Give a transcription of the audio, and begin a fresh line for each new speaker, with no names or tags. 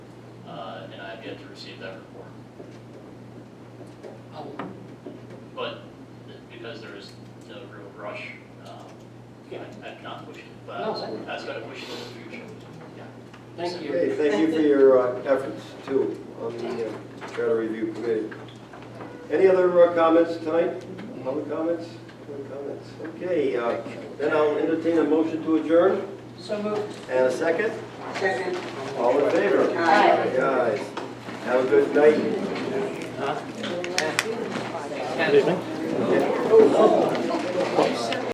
uh, I've yet to receive that report.
Oh,
But because there is no real rush, um,
Yeah.
I- I've not pushed it, but
No, that-
I was going to push it in the future.
Thank you.
Okay, thank you for your uh, efforts too on the uh, charter review committee. Any other uh, comments tonight? Public comments? Public comments? Okay, uh, then I'll entertain a motion to adjourn
So moved.
and a second.
Second.
All in favor?
Aye.
Guys, have a good night.
Good evening.
You said